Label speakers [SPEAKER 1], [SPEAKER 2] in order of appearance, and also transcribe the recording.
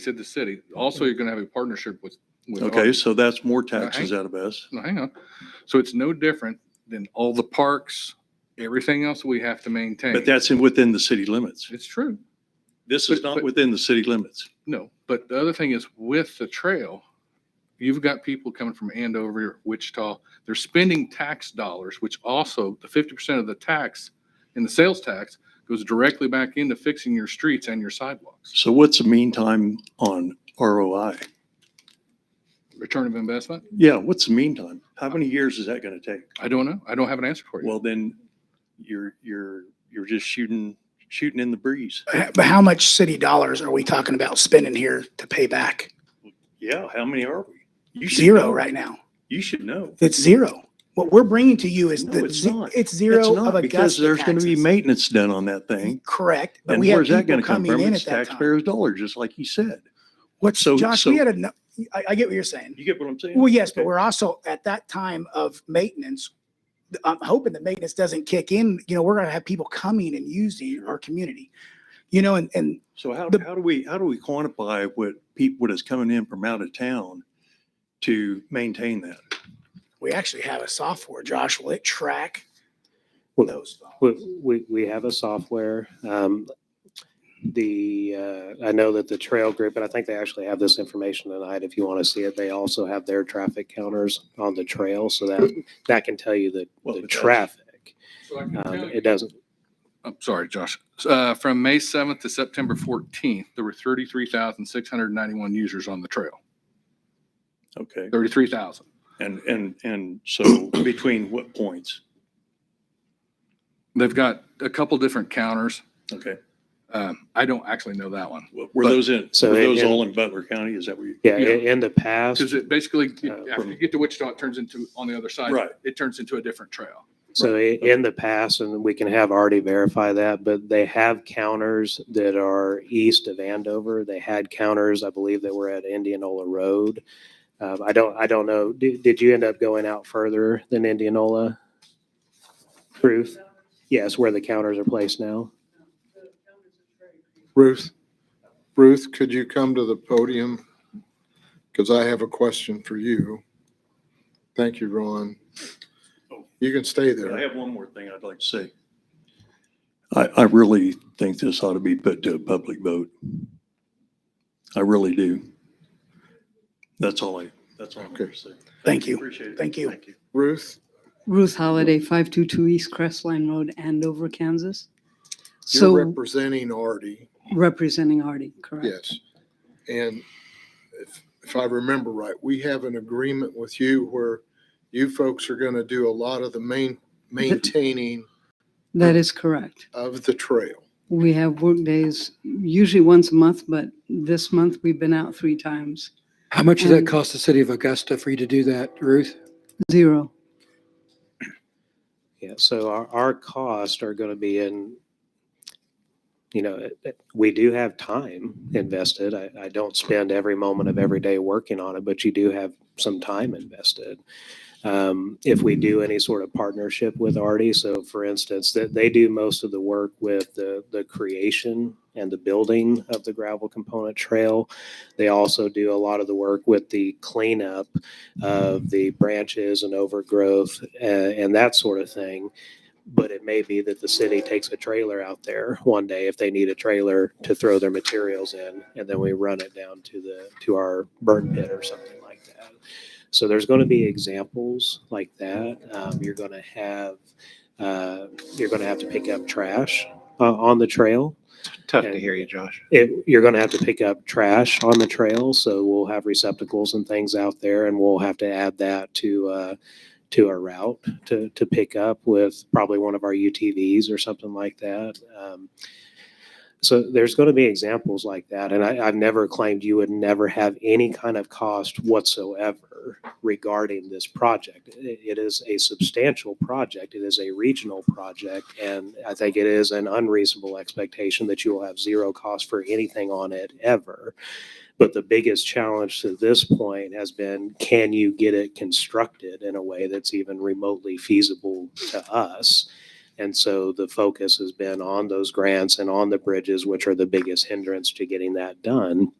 [SPEAKER 1] said the city. Also, you're gonna have a partnership with. with
[SPEAKER 2] Okay,
[SPEAKER 1] others.
[SPEAKER 2] so that's more taxes out of us.
[SPEAKER 1] Now, hang on. So it's no different than all the parks, everything else we have to maintain.
[SPEAKER 2] But that's in, within the city limits.
[SPEAKER 1] It's true.
[SPEAKER 2] This is
[SPEAKER 1] But-
[SPEAKER 2] not
[SPEAKER 1] but-
[SPEAKER 2] within the city limits.
[SPEAKER 1] No, but the other thing is with the trail, you've got people coming from Andover, Wichita. They're spending tax dollars, which also the fifty percent of the tax and the sales tax goes directly back into fixing your streets and your sidewalks.
[SPEAKER 2] So what's the mean time on ROI?
[SPEAKER 1] Return of investment?
[SPEAKER 2] Yeah, what's the mean time? How many years is that going to take?
[SPEAKER 1] I don't know. I don't have an answer for you.
[SPEAKER 2] Well, then you're, you're, you're just shooting, shooting in the breeze.
[SPEAKER 3] But how much city dollars are we talking about spending here to pay back?
[SPEAKER 2] Yeah, how many are we? You should
[SPEAKER 3] Zero
[SPEAKER 2] know.
[SPEAKER 3] right now.
[SPEAKER 2] You should know.
[SPEAKER 3] It's zero. What we're bringing to you is
[SPEAKER 2] No,
[SPEAKER 3] the,
[SPEAKER 2] it's
[SPEAKER 3] ze-
[SPEAKER 2] not.
[SPEAKER 3] it's
[SPEAKER 2] It's
[SPEAKER 3] zero of
[SPEAKER 2] not
[SPEAKER 3] a
[SPEAKER 2] because
[SPEAKER 3] gust of
[SPEAKER 2] there's going to be
[SPEAKER 3] taxes.
[SPEAKER 2] maintenance done on that thing.
[SPEAKER 3] Correct, but
[SPEAKER 2] And
[SPEAKER 3] we have
[SPEAKER 2] where's that going
[SPEAKER 3] people
[SPEAKER 2] to come from?
[SPEAKER 3] coming in
[SPEAKER 2] It's
[SPEAKER 3] at that time.
[SPEAKER 2] taxpayers' dollars, just like you said.
[SPEAKER 3] What's,
[SPEAKER 2] so-
[SPEAKER 3] Josh,
[SPEAKER 2] so-
[SPEAKER 3] we had a, no- I, I get what you're saying.
[SPEAKER 2] You get what I'm saying?
[SPEAKER 3] Well, yes, but
[SPEAKER 2] Okay.
[SPEAKER 3] we're also at that time of maintenance. I'm hoping that maintenance doesn't kick in. You know, we're going to have people coming and using our community. You know, and, and
[SPEAKER 2] So how,
[SPEAKER 3] The-
[SPEAKER 2] how do we, how do we quantify what people, what is coming in from out of town to maintain that?
[SPEAKER 3] we actually have a software, Josh, will it track
[SPEAKER 4] Well,
[SPEAKER 3] those? dollars?
[SPEAKER 4] We, we, we have a software. Um, the, uh, I know that the trail group, and I think they actually have this information tonight if you want to see it. They also have their traffic counters on the trail so that, that can tell you the,
[SPEAKER 2] Well,
[SPEAKER 4] the
[SPEAKER 2] but that's-
[SPEAKER 4] traffic.
[SPEAKER 1] So I can tell
[SPEAKER 4] Um,
[SPEAKER 2] uh,
[SPEAKER 1] you-
[SPEAKER 4] it doesn't,
[SPEAKER 1] I'm Oh, sorry, Josh. Uh, From May 7th to September 14th, there were 33,691 users on the trail.
[SPEAKER 2] Okay,
[SPEAKER 1] 33,000.
[SPEAKER 2] and, and, and so between what points?
[SPEAKER 1] They've got a couple different counters.
[SPEAKER 2] Okay,
[SPEAKER 1] Um, I don't actually know that one.
[SPEAKER 2] w- were
[SPEAKER 1] But-
[SPEAKER 2] those in,
[SPEAKER 4] so
[SPEAKER 2] were
[SPEAKER 4] it-
[SPEAKER 2] those
[SPEAKER 4] it-
[SPEAKER 2] all in Butler County? Is that what you?
[SPEAKER 4] yeah,
[SPEAKER 1] Yeah.
[SPEAKER 4] in, in the past.
[SPEAKER 1] Because it basically,
[SPEAKER 4] Uh,
[SPEAKER 1] after you get to Wichita, it turns into, on the other side,
[SPEAKER 2] Right.
[SPEAKER 1] it turns into a different trail.
[SPEAKER 4] So i- in the past, and we can have already verify that, but they have counters that are east of Andover. They had counters, I believe, that were at Indianola Road. Um, I don't, I don't know. Did, did you end up going out further than Indianola? Ruth? Yes, where the counters are placed now.
[SPEAKER 5] Ruth, Ruth, could you come to the podium? Because I have a question for you. Thank you, Ron. You can stay
[SPEAKER 2] I
[SPEAKER 5] there.
[SPEAKER 2] have one more thing I'd like to say. I, I really think this ought to be put to a public vote. I really do. That's all I, that's all I'm going to say.
[SPEAKER 3] Thank you.
[SPEAKER 2] Appreciate it.
[SPEAKER 3] Thank you.
[SPEAKER 2] Thank you.
[SPEAKER 5] Ruth,
[SPEAKER 6] Ruth Holiday, 522 East Crestline Road, Andover, Kansas.
[SPEAKER 5] you're
[SPEAKER 6] So
[SPEAKER 5] representing Artie,
[SPEAKER 6] representing Artie, correct?
[SPEAKER 5] yes. And if, if I remember right, we have an agreement with you where you folks are going to do a lot of the main, maintaining
[SPEAKER 6] That is correct.
[SPEAKER 5] of the trail.
[SPEAKER 6] We have work days usually once a month, but this month we've been out three times.
[SPEAKER 7] How much does that
[SPEAKER 6] And-
[SPEAKER 7] cost the city of Augusta for you to do that, Ruth?
[SPEAKER 6] Zero.
[SPEAKER 4] Yeah, so our, our costs are going to be in, you know, it- it- we do have time invested. I, I don't spend every moment of every day working on it, but you do have some time invested. Um, If we do any sort of partnership with Artie, so for instance, that they do most of the work with the, the creation and the building of the gravel component trail. They also do a lot of the work with the cleanup of the branches and overgrowth uh, and that sort of thing. But it may be that the city takes a trailer out there one day if they need a trailer to throw their materials in, and then we run it down to the, to our burn pit or something like that. So there's going to be examples like that. Um, You're going to have, uh, you're going to have to pick up trash uh, on the trail.
[SPEAKER 8] Tough
[SPEAKER 4] And-
[SPEAKER 8] to hear you, Josh.
[SPEAKER 4] it, you're going to have to pick up trash on the trail, so we'll have receptacles and things out there, and we'll have to add that to uh, to our route to to pick up with probably one of our UTVs or something like that. Um, so there's going to be examples like that, and I, I've never claimed you would never have any kind of cost whatsoever regarding this project. It- it is a substantial project. It is a regional project, and I think it is an unreasonable expectation that you will have zero cost for anything on it ever. But the biggest challenge to this point has been, can you get it constructed in a way that's even remotely feasible to us? And so the focus has been on those grants and on the bridges, which are the biggest hindrance to getting that done.